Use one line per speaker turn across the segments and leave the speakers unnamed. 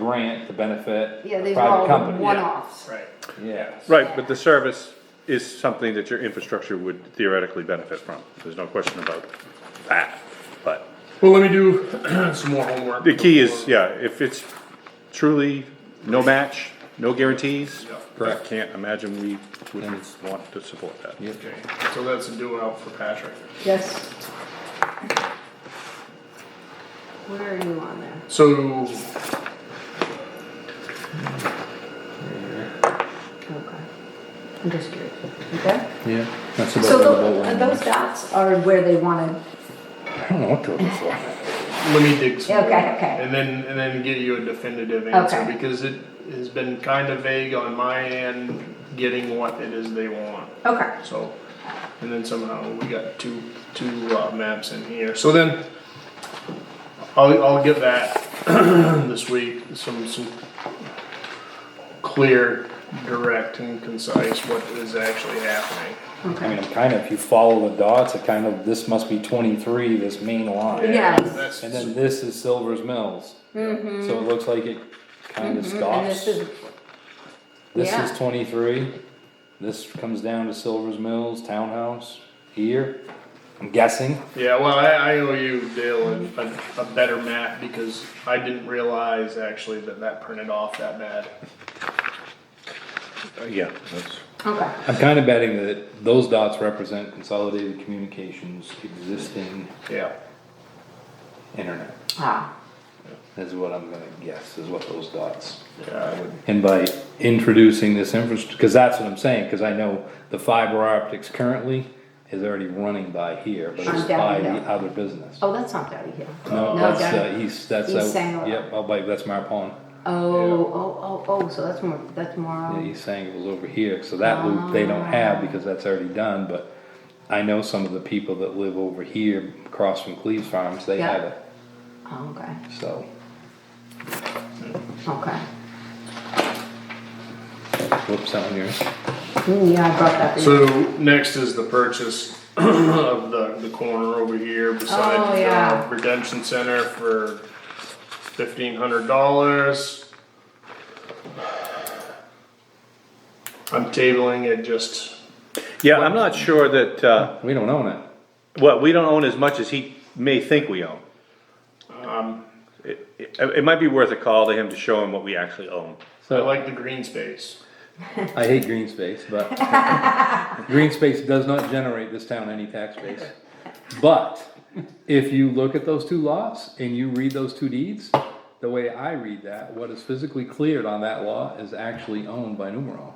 grant to benefit
Yeah,
a
these are all
private company,
one-offs.
Right.
yes.
Right, but the service is something that your infrastructure would theoretically benefit from, there's no question about that, but.
Well, let me do some more homework.
The key is, yeah, if it's truly no match, no guarantees, I
Correct.
can't imagine we wouldn't want to support that.
Okay, so that's a do out for Patrick.
Yes. Where are you on there?
So,
Okay. I'm just curious. Okay?
Yeah, that's
So tho- uh, those dots are where they wanted,
I don't know what to look for.
let me dig some.
Okay,
more.
okay.
And then, and then get you a definitive answer,
Okay.
because it has been kind of vague on my end, getting what it is they want.
okay.
So, and then somehow we got two, two uh, maps in here, so then, I'll, I'll get that this week, some, some clear, direct and concise what is actually happening.
I mean, I'm kind of, if you follow the dots, it kind of, this must be twenty-three, this main line.
Yes.
That's-
And then this is Silver's Mills. So it looks like it kind of
Mm-hmm. And this
stops.
is,
This
yeah.
is twenty-three. This comes down to Silver's Mills Townhouse here. I'm guessing.
Yeah, well, I, I owe you, Dale, a, a, a better map because I didn't realize actually that that printed off that bad.
Uh, Yeah, that's,
okay,
I'm kind of betting that those dots represent Consolidated Communications' existing
Yeah.
internet.
ah,
Is what I'm gonna guess, is what those dots.
Yeah, I would-
And by introducing this infrastructure, because that's what I'm saying, because I know the fiber optics currently is already running by here, but it's
On down
by the
hill.
other business.
oh, that's not Dowdy Hill.
No,
Oh, No,
that's,
down-
uh, east, that's,
East
out-
Sangamo.
yep, I'll bite, that's Mar Pond.
Oh, oh, oh, oh, so that's more, that's more,
Yeah,
um,
he's saying it was over here, so that loop they don't have because that's already done, but I know some of the people that live over here across from Cleves Farms, they
Yeah.
have it,
oh, okay,
so.
okay.
Whoops, that one yours.
Mm, Yeah, I brought that. to you.
So next is the purchase of the, the corner over here
Oh,
beside
yeah.
the uh, redemption center for fifteen hundred dollars. I'm tabling it just,
yeah, I'm not sure that, uh,
We don't own it.
well, we don't own as much as he may think we own.
Um,
It, it, it might be worth a call to him to show him what we actually own.
I
So
like the green space.
I hate green space, but green space does not generate this town any tax base. But if you look at those two laws and you read those two deeds, the way I read that, what is physically cleared on that law is actually owned by Numerall.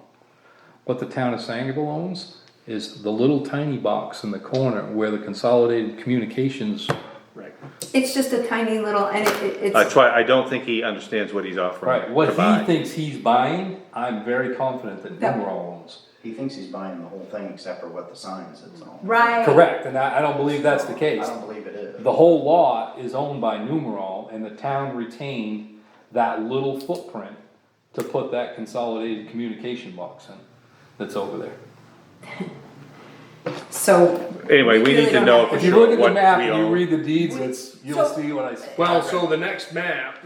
What the town of Sangerville owns is the little tiny box in the corner where the consolidated communications,
Right.
It's just a tiny little, and it, it-
That's
it's,
why I don't think he understands what he's offering.
right, what
to buy.
he thinks he's buying, I'm very confident that
That-
Numerall owns.
He thinks he's buying the whole thing except for what the sign is, it's all.
right.
Correct, and I, I don't believe that's the case.
I don't believe it is.
The whole lot is owned by Numerall and the town retained that little footprint to put that consolidated communication box in that's over there.
So,
Anyway, we need to know for
If you look
sure
at the
what we
map and you
own.
read the deeds, it's, you'll
So-
see what I said.
Well, so the next map,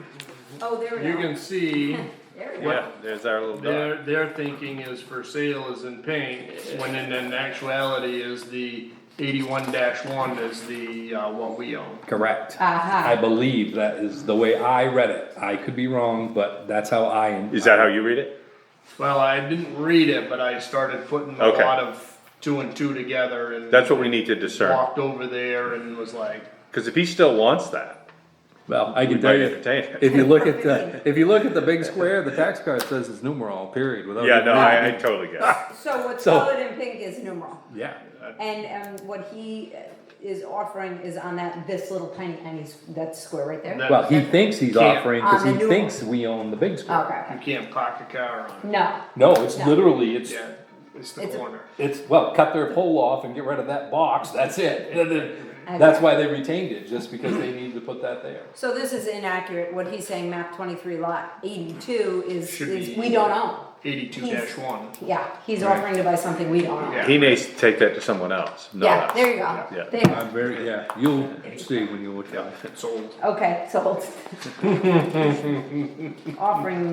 oh, there we
you
go.
can see
There we go.
Yeah, there's our little dot.
Their, their thinking is for sale is in pink, when in, in actuality is the eighty-one dash one is the, uh, what we own.
Correct.
Aha.
I believe that is the way I read it. I could be wrong, but that's how I.
Is that how you read it?
Well, I didn't read it, but I started putting a
Okay.
lot of two and two together and.
That's what we need to discern,
Walked over there and was like,
cause if he still wants that.
Well, I can
might
tell you,
entertain it.
if you look at the, if you look at the big square, the tax card says it's Numerall, period, without.
Yeah, no,
even-
I, I totally get it.
So what's
So-
colored in pink is numeral.
Yeah.
And um, what he uh, is offering is on that, this little tiny, tiny, s- that square right there?
That-
Well, he thinks he's
Can't.
offering, cause
On
he
the Numerall.
thinks we own the big square.
Oh, Okay,
you
okay.
can't park a car on it.
No,
No, it's
No.
literally, it's,
Yeah, it's the
It's a-
corner.
It's, well, cut their pole off and get rid of that box, that's it. And then That's why they retained it, just because they needed to put that there.
So this is inaccurate, what he's saying, map twenty-three lot eighty-two is,
Should
is,
be-
we don't own.
eighty-two
He's-
dash one.
Yeah, he's offering to buy something we don't own.
Yeah.
He may take that to someone else,
Yeah,
not
there
us.
you
Yeah.
go. There you go.
I'm very, yeah, you'll see when you look at it.
It's old.
Okay, sold. Offering